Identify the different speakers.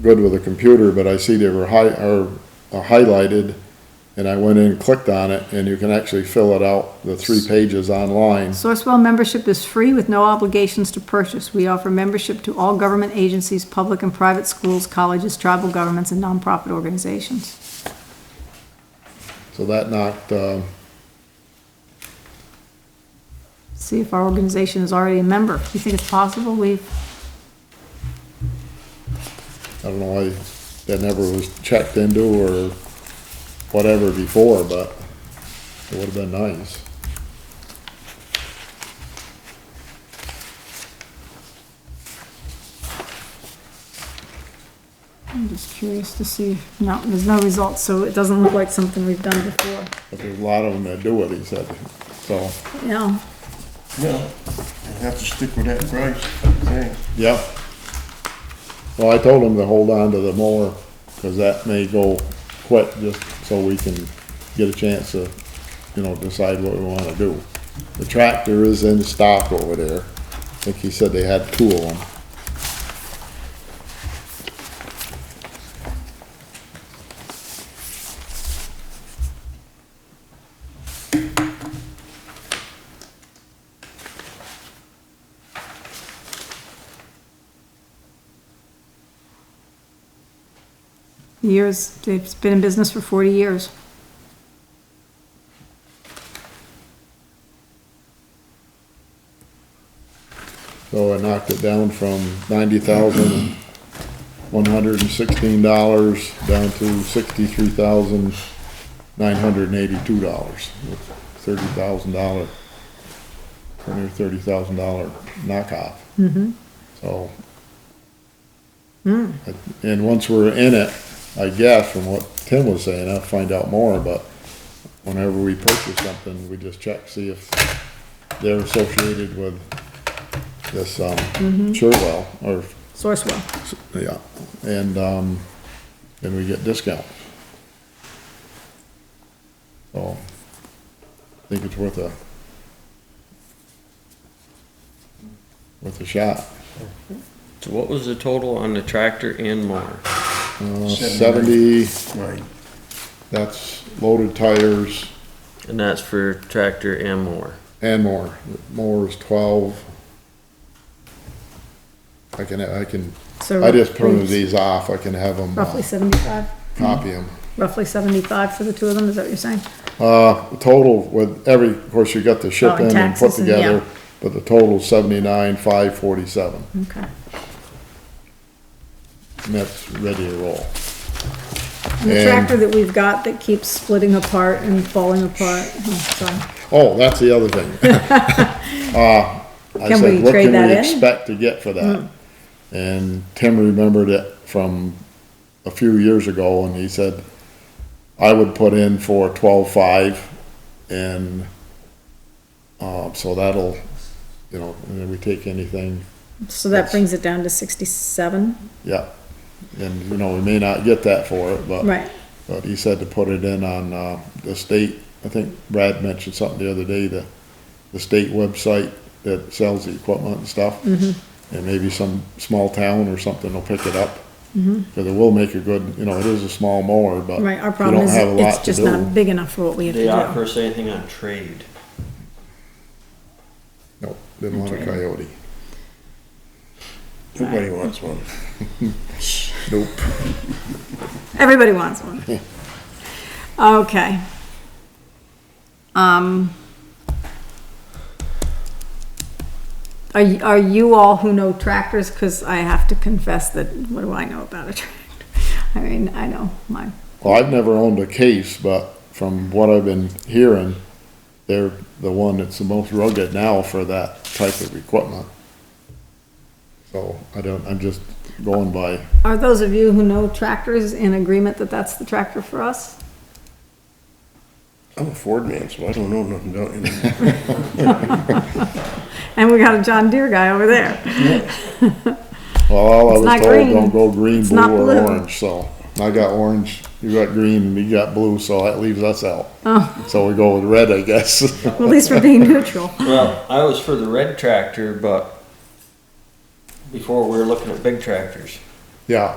Speaker 1: good with a computer, but I see they were hi, are are highlighted, and I went in and clicked on it, and you can actually fill it out, the three pages online.
Speaker 2: Sourcewell membership is free with no obligations to purchase. We offer membership to all government agencies, public and private schools, colleges, tribal governments, and nonprofit organizations.
Speaker 1: So that knocked, um,
Speaker 2: See if our organization is already a member. You think it's possible? We've,
Speaker 1: I don't know why that never was checked into or whatever before, but it would've been nice.
Speaker 2: I'm just curious to see. No, there's no results, so it doesn't look like something we've done before.
Speaker 1: But there's a lot of them that do it, he said, so,
Speaker 2: Yeah,
Speaker 3: Yeah, I have to stick with that price, okay?
Speaker 1: yeah. Well, I told him to hold on to the mower, cause that may go quick, just so we can get a chance to, you know, decide what we wanna do. The tractor is in stock over there, I think he said they had two of them.
Speaker 2: years, it's been in business for forty years.
Speaker 1: So I knocked it down from ninety thousand, one hundred and sixteen dollars down to sixty-three thousand, nine hundred and eighty-two dollars. Thirty thousand dollar, twenty or thirty thousand dollar knockoff. Mm-hmm. So. I- And once we're in it, I guess from what Tim was saying, I'll find out more, but whenever we purchase something, we just check, see if they're associated with this, um,
Speaker 2: Mm-hmm.
Speaker 1: Sherwell, or,
Speaker 2: Sourcewell.
Speaker 1: yeah, and, um, then we get discount. So, I think it's worth a, worth a shot.
Speaker 4: So what was the total on the tractor and mower?
Speaker 1: Uh,
Speaker 3: Seventy.
Speaker 1: Seventy,
Speaker 3: Right,
Speaker 1: that's loaded tires
Speaker 4: And that's for tractor and mower.
Speaker 1: and more, more is twelve. I can, I can,
Speaker 2: So
Speaker 1: I just printed these off, I can have them,
Speaker 2: Roughly seventy-five,
Speaker 1: copy them.
Speaker 2: roughly seventy-five for the two of them, is that what you're saying?
Speaker 1: Uh, the total with every, of course, you got the
Speaker 2: Oh,
Speaker 1: ship
Speaker 2: and
Speaker 1: in and put
Speaker 2: taxes and-
Speaker 1: together,
Speaker 2: yeah.
Speaker 1: but the total seventy-nine, five forty-seven,
Speaker 2: Okay.
Speaker 1: and that's ready to roll.
Speaker 2: And the
Speaker 1: And-
Speaker 2: tractor that we've got that keeps splitting apart and falling apart, oh, sorry.
Speaker 1: Oh, that's the other thing. Uh, I
Speaker 2: Can we
Speaker 1: said, what
Speaker 2: trade
Speaker 1: can
Speaker 2: that
Speaker 1: we
Speaker 2: in?" Mm.
Speaker 1: expect to get for that? And Tim remembered it from a few years ago, and he said, I would put in for twelve-five, and, um, so that'll, you know, and then we take anything
Speaker 2: So that brings it down to sixty-seven,
Speaker 1: Yeah, and you know, we may not get that for it, but.
Speaker 2: right?
Speaker 1: But he said to put it in on, uh, the state, I think Brad mentioned something the other day, the, the state website that sells the equipment and stuff.
Speaker 2: Mm-hmm.
Speaker 1: And maybe some small town or something will pick it up. Cause it will make a good, you know, it is a small mower, but.
Speaker 2: Mm-hmm. Right, our
Speaker 1: you
Speaker 2: problem
Speaker 1: uh, don't
Speaker 2: is
Speaker 1: have a
Speaker 2: it's
Speaker 1: lot to
Speaker 2: just
Speaker 1: do.
Speaker 2: not big enough for what we have
Speaker 4: They offer
Speaker 2: to
Speaker 4: us anything on trade?
Speaker 1: Nope, didn't want a coyote.
Speaker 3: nobody wants one.
Speaker 1: Nope.
Speaker 2: do. Everybody wants one. Okay. Um. Are, y- are you all who know tractors, cause I have to confess that, what do I know about a tractor? I mean, I know my
Speaker 1: Well, I've never owned a case, but from what I've been hearing, they're the one that's the most rugged now for that type of equipment. So I don't, I'm just going by,
Speaker 2: Are those of you who know tractors in agreement that that's the tractor for us?
Speaker 3: I'm a Ford man, so I don't know nothing about it.
Speaker 2: And we got a John Deere guy over there.
Speaker 1: well, all I
Speaker 2: It's
Speaker 1: was
Speaker 2: not
Speaker 1: told,
Speaker 2: green.
Speaker 1: don't go green,
Speaker 2: It's
Speaker 1: blue
Speaker 2: not
Speaker 1: or
Speaker 2: blue.
Speaker 1: orange, so. I got orange, you got green, and you got blue, so that leaves us out.
Speaker 2: Oh.
Speaker 1: So we go with red, I guess.
Speaker 2: Well, At least we're being neutral.
Speaker 4: Well, I was for the red tractor, but before we were looking at big tractors.
Speaker 1: Yeah,